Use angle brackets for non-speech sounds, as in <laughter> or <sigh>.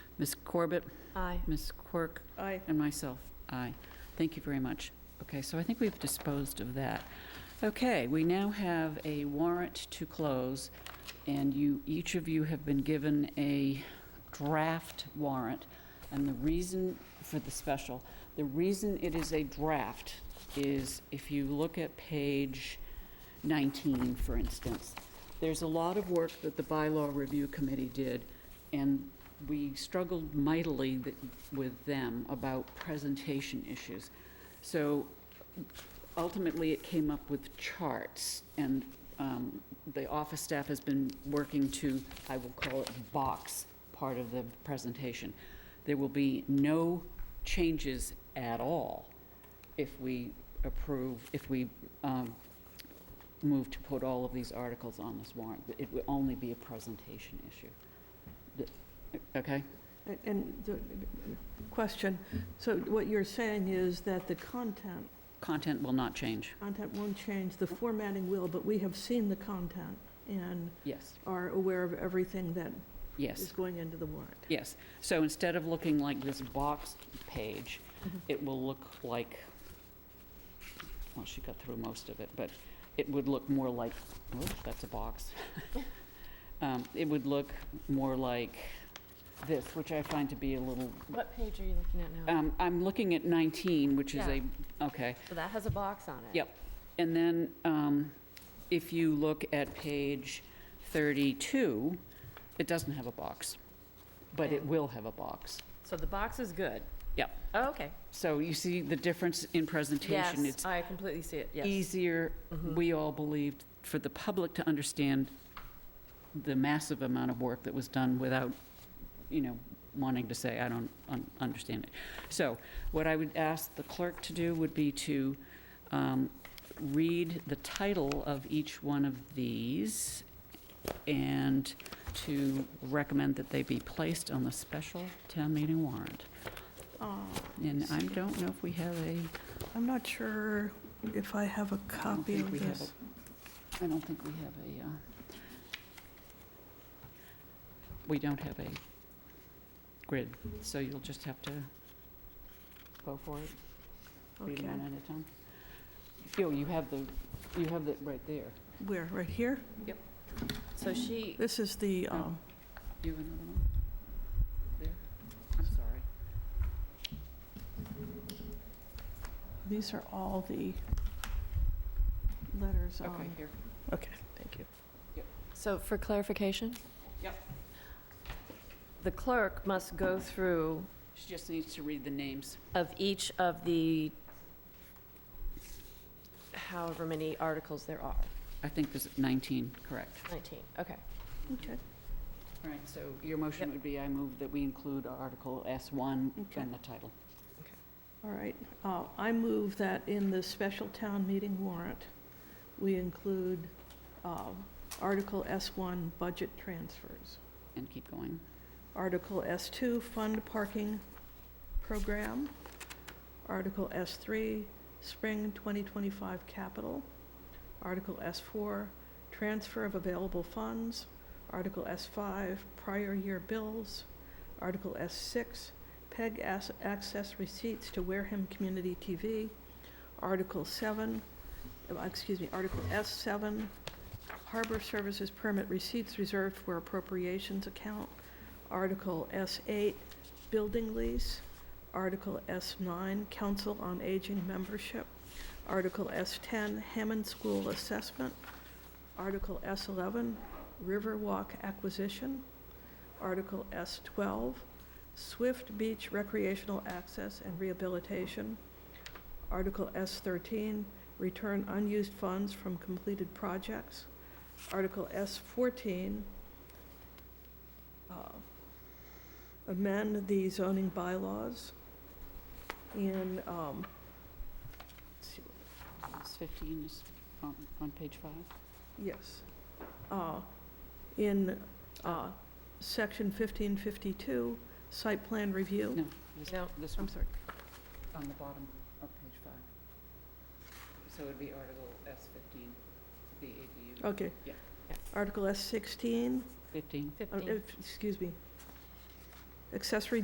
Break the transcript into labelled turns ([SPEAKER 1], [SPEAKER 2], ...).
[SPEAKER 1] Ms. Corbett,
[SPEAKER 2] Aye.
[SPEAKER 1] Ms. Quirk,
[SPEAKER 2] Aye.
[SPEAKER 1] and myself, aye. Thank you very much. Okay, so I think we've disposed of that. Okay, we now have a warrant to close, and you, each of you have been given a draft warrant, and the reason for the special, the reason it is a draft is if you look at page 19, for instance, there's a lot of work that the bylaw review committee did, and we struggled mightily th- with them about presentation issues. So ultimately, it came up with charts, and um, the office staff has been working to, I will call it box, part of the presentation. There will be no changes at all if we approve, if we um, move to put all of these articles on this warrant. It will only be a presentation issue. The- Okay?
[SPEAKER 2] And- And the the question, so what you're saying is that the content,
[SPEAKER 1] Content will not change.
[SPEAKER 2] content won't change, the formatting will, but we have seen the content and
[SPEAKER 1] Yes,
[SPEAKER 2] are aware of everything that is
[SPEAKER 1] yes,
[SPEAKER 2] going into the warrant.
[SPEAKER 1] yes. So instead of looking like this box page, it will look like, well, she got through most of it, but it would look more like, oh, that's a <laughs> box. Um, It would look more like this, which I find to be a little,
[SPEAKER 3] What page are you looking at now?
[SPEAKER 1] um, I'm looking at 19, which is a,
[SPEAKER 3] Yeah.
[SPEAKER 1] okay.
[SPEAKER 3] So that has a box on it.
[SPEAKER 1] Yep. And then um, if you look at page 32, it doesn't have a box, but it
[SPEAKER 3] Okay.
[SPEAKER 1] will have a box.
[SPEAKER 3] So the box is good?
[SPEAKER 1] Yep.
[SPEAKER 3] Oh, okay.
[SPEAKER 1] So you see the difference in presentation?
[SPEAKER 3] Yes, I completely see it,
[SPEAKER 1] It's
[SPEAKER 3] yes.
[SPEAKER 1] easier,
[SPEAKER 3] Mhm.
[SPEAKER 1] we all believed, for the public to understand the massive amount of work that was done without, you know, wanting to say, I don't un- understand it. So what I would ask the clerk to do would be to um, read the title of each one of these and to recommend that they be placed on the special town meeting warrant.
[SPEAKER 2] Uh,
[SPEAKER 1] And I don't know if we have a,
[SPEAKER 2] I'm not sure if I have a
[SPEAKER 1] I don't
[SPEAKER 2] copy
[SPEAKER 1] think
[SPEAKER 2] of
[SPEAKER 1] we have
[SPEAKER 2] this.
[SPEAKER 1] a- I don't think we have a, uh, we don't have a grid, so you'll just have to go for it, read
[SPEAKER 2] Okay,
[SPEAKER 1] them one at a time. Yo, you have the, you have it right there.
[SPEAKER 2] where, right here?
[SPEAKER 3] So she,
[SPEAKER 2] This is the,
[SPEAKER 1] Oh.
[SPEAKER 2] um,
[SPEAKER 1] You have another one? There? I'm sorry.
[SPEAKER 2] these are all the letters um, on.
[SPEAKER 1] Okay, here.
[SPEAKER 2] Okay, thank you.
[SPEAKER 3] so for clarification?
[SPEAKER 1] Yep.
[SPEAKER 3] The clerk must go through
[SPEAKER 1] She just needs to read the names.
[SPEAKER 3] of each of the however many articles there are.
[SPEAKER 1] I think there's 19, correct.
[SPEAKER 3] 19, okay.
[SPEAKER 2] Okay,
[SPEAKER 1] All right, so your motion
[SPEAKER 3] Yep.
[SPEAKER 1] would be, I move that we include Article S1
[SPEAKER 2] Okay.
[SPEAKER 1] and the title.
[SPEAKER 2] all right. Uh, I move that in the special town meeting warrant, we include uh, Article S1, budget transfers,
[SPEAKER 1] and keep going.
[SPEAKER 2] Article S2, fund parking program, Article S3, spring 2025 capital, Article S4, transfer of available funds, Article S5, prior year bills, Article S6, PEG ass- access receipts to Wareham Community TV, Article 7, uh, excuse me, Article S7, harbor services permit receipts reserved for appropriations account, Article S8, building lease, Article S9, Council on Aging membership, Article S10, Hammond School assessment, Article S11, Riverwalk acquisition, Article S12, Swift Beach recreational access and rehabilitation, Article S13, return unused funds from completed projects, Article S14, uh, amend the zoning bylaws in, um, let's see,
[SPEAKER 1] It's 15 is on, on page five.
[SPEAKER 2] yes, uh, in, uh, section 1552, site plan review.
[SPEAKER 1] No, this,
[SPEAKER 3] No.
[SPEAKER 1] this
[SPEAKER 2] I'm
[SPEAKER 1] one's
[SPEAKER 2] sorry,
[SPEAKER 1] on the bottom of page five. So it'd be Article S fifteen, the ADU.
[SPEAKER 2] okay.
[SPEAKER 1] Yeah.
[SPEAKER 2] Article S16,
[SPEAKER 1] Fifteen,
[SPEAKER 2] uh,
[SPEAKER 3] 15.
[SPEAKER 2] if- excuse me, accessory